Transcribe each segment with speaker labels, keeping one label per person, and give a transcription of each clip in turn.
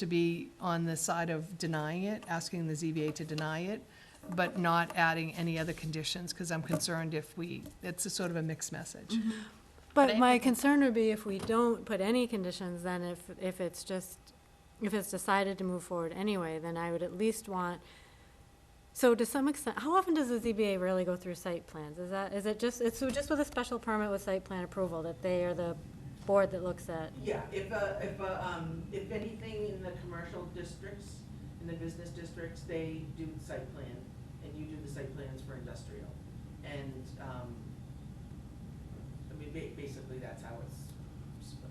Speaker 1: to be on the side of denying it, asking the ZBA to deny it, but not adding any other conditions, because I'm concerned if we, it's a sort of a mixed message.
Speaker 2: Mm-hmm.
Speaker 3: But my concern would be if we don't put any conditions, then if, if it's just, if it's decided to move forward anyway, then I would at least want, so to some extent, how often does the ZBA really go through site plans? Is that, is it just, it's just with a special permit with site plan approval, that they are the board that looks at?
Speaker 4: Yeah, if, uh, if, uh, um, if anything in the commercial districts, in the business districts, they do the site plan, and you do the site plans for industrial. And, um, I mean, ba- basically, that's how it's split.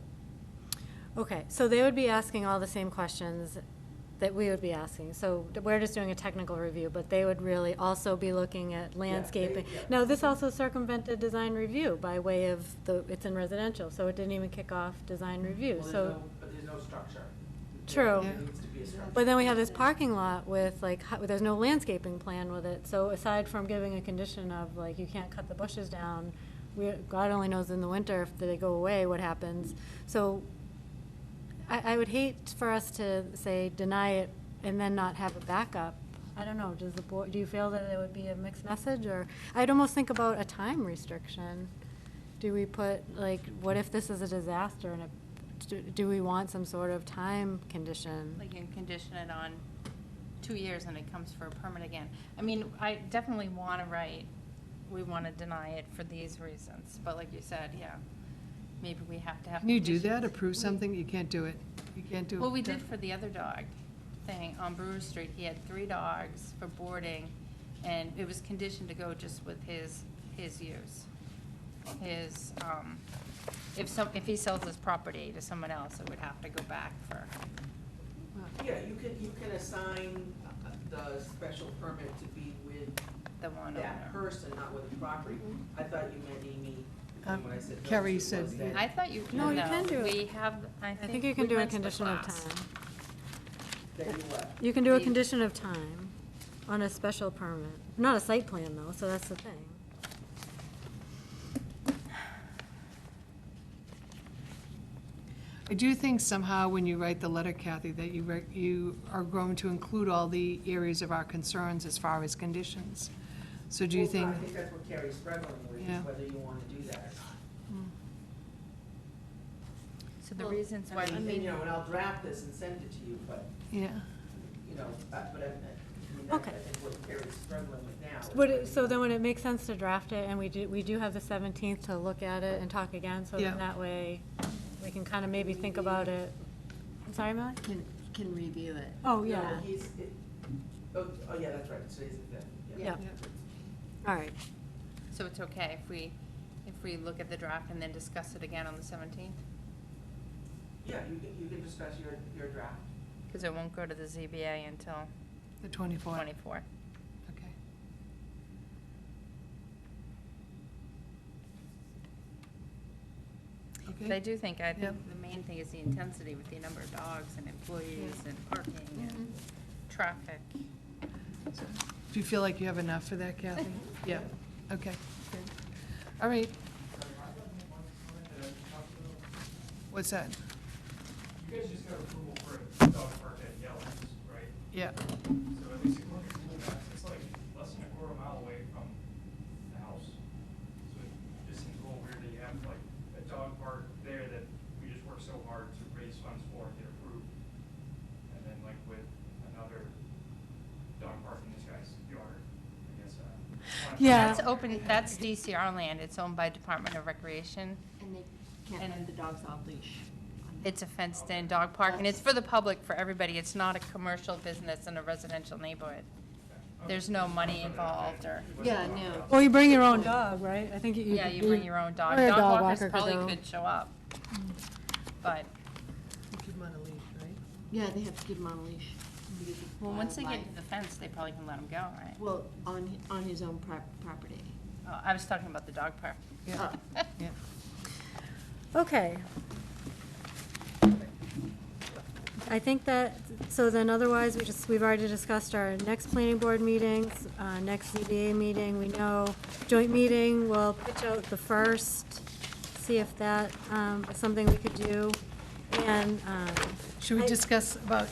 Speaker 3: Okay, so they would be asking all the same questions that we would be asking. So we're just doing a technical review, but they would really also be looking at landscaping.
Speaker 4: yeah.
Speaker 3: Now, this also circumvented design review by way of the, it's in residential, so it didn't even kick off design review,
Speaker 4: Hmm. Well, there's
Speaker 3: so.
Speaker 4: no- But there's no structure.
Speaker 3: True.
Speaker 4: There needs to be a structure.
Speaker 3: But then we have this parking lot with like, hu- there's no landscaping plan with it. So aside from giving a condition of like, you can't cut the bushes down, we, God only knows in the winter if they go away, what happens. So I, I would hate for us to say deny it and then not have a backup. I don't know, does the board, do you feel that it would be a mixed message or, I'd almost think about a time restriction. Do we put, like, what if this is a disaster and it, do- do we want some sort of time condition?
Speaker 2: Like you can condition it on two years and it comes for a permit again. I mean, I definitely want to write, we want to deny it for these reasons, but like you said, yeah, maybe we have to have.
Speaker 1: Can you do
Speaker 2: conditions.
Speaker 1: that, approve
Speaker 2: We-
Speaker 1: something? You can't do it. You can't do it.
Speaker 2: Well, we did for the other dog thing on Brewer Street. He had three dogs for boarding and it was conditioned to go just with his, his use. His, um, if some, if he sells his property to someone else, it would have to go back for,
Speaker 4: Yeah, you can, you can assign uh, the special permit to be with
Speaker 2: the
Speaker 1: Oh,
Speaker 2: one owner.
Speaker 4: that person, not with the property.
Speaker 3: Mm-hmm.
Speaker 4: I thought you meant Amy,
Speaker 1: Um,
Speaker 4: when I said. those
Speaker 1: Carrie
Speaker 4: two was
Speaker 1: said-
Speaker 4: that-
Speaker 2: I thought you,
Speaker 3: No,
Speaker 2: no,
Speaker 3: you can do it.
Speaker 2: we have, I think.
Speaker 3: I think you can do a
Speaker 2: went to the
Speaker 3: condition of
Speaker 2: class.
Speaker 3: time.
Speaker 4: That you uh, what?
Speaker 3: You can do a
Speaker 2: You-
Speaker 3: condition of time on a special permit, not a site plan though, so that's the thing.
Speaker 1: I do think somehow when you write the letter, Kathy, that you, write- you are going to include all the areas of our concerns as far as conditions. So do you
Speaker 4: Well, no,
Speaker 1: think,
Speaker 4: I think that's what Carrie's struggling with,
Speaker 1: Yeah.
Speaker 4: is whether you want to do that or not.
Speaker 2: So the
Speaker 4: Well,
Speaker 2: reasons why,
Speaker 4: I
Speaker 2: we
Speaker 4: mean,
Speaker 2: made-
Speaker 4: you know, and I'll draft this and send it to you, but,
Speaker 1: yeah,
Speaker 4: you know, uh, but I, I mean, that's, I
Speaker 3: Okay.
Speaker 4: think what Carrie's struggling with now. is
Speaker 3: Would
Speaker 4: whether
Speaker 3: it, so
Speaker 4: you
Speaker 3: then
Speaker 4: want-
Speaker 3: would it make sense to draft it, and we do, we do have the seventeenth to look at it and talk again, so
Speaker 1: Yeah.
Speaker 3: then that way, we can kind of maybe think about it. I'm sorry, Millie?
Speaker 5: Can, can review it.
Speaker 3: Oh,
Speaker 4: No,
Speaker 3: yeah,
Speaker 4: He's, it, oh, oh, yeah, that's right, today's the fifth, yeah.
Speaker 3: Yeah. all right,
Speaker 2: so it's okay if we, if we look at the draft and then discuss it again on the seventeenth?
Speaker 4: Yeah, you can, you can discuss your, your draft.
Speaker 2: Because it won't go to the ZBA until
Speaker 1: the 24.
Speaker 2: twenty-fourth.
Speaker 1: Okay.
Speaker 2: But I
Speaker 1: Okay,
Speaker 2: do think, I think
Speaker 1: Yep.
Speaker 2: the main thing is the intensity with the number of dogs and employees and parking and traffic.
Speaker 1: do you feel like you have enough for that, Kathy? Yeah, okay. good. All right. What's that?
Speaker 6: You guys just got approval for a dog park at Yellis, right?
Speaker 1: Yeah,
Speaker 6: So at least if we're approval that, it's like less than a quarter mile away from the house. So it just seems a little weird that you have like a dog park there that we just worked so hard to raise funds for and get approved. And then like with another dog park in this guy's yard, I guess. uh, I don't know.
Speaker 3: Yeah.
Speaker 2: That's open, that's DCR land, it's owned by Department of Recreation.
Speaker 5: And they can't have the dogs on leash.
Speaker 2: It's a fenced-in dog park, and it's for the public, for everybody. It's not a commercial business in a residential neighborhood. There's no money involved or,
Speaker 5: Yeah, no.
Speaker 1: Oh,
Speaker 3: or you bring your own dog, right? I think you.
Speaker 2: yeah, you bring your own dog.
Speaker 3: Or a
Speaker 2: Dog
Speaker 3: dog
Speaker 2: walkers
Speaker 3: walker could go.
Speaker 2: probably could show up. But,
Speaker 1: you could want to leave, right?
Speaker 5: Yeah, they have to keep him on a leash. because of
Speaker 2: well, once they get to
Speaker 5: wildlife.
Speaker 2: the fence, they probably can let them go, right?
Speaker 5: Well, on, on his own prop- property.
Speaker 2: Oh, I was talking about the dog park.
Speaker 1: Yeah, yeah.
Speaker 3: Okay. I think that, so then otherwise, we just, we've already discussed our next planning board meetings, uh, next ZBA meeting, we know, joint meeting, we'll pitch out the first, see if that, um, is something we could do, and, um.
Speaker 1: Should we
Speaker 3: I-
Speaker 1: discuss about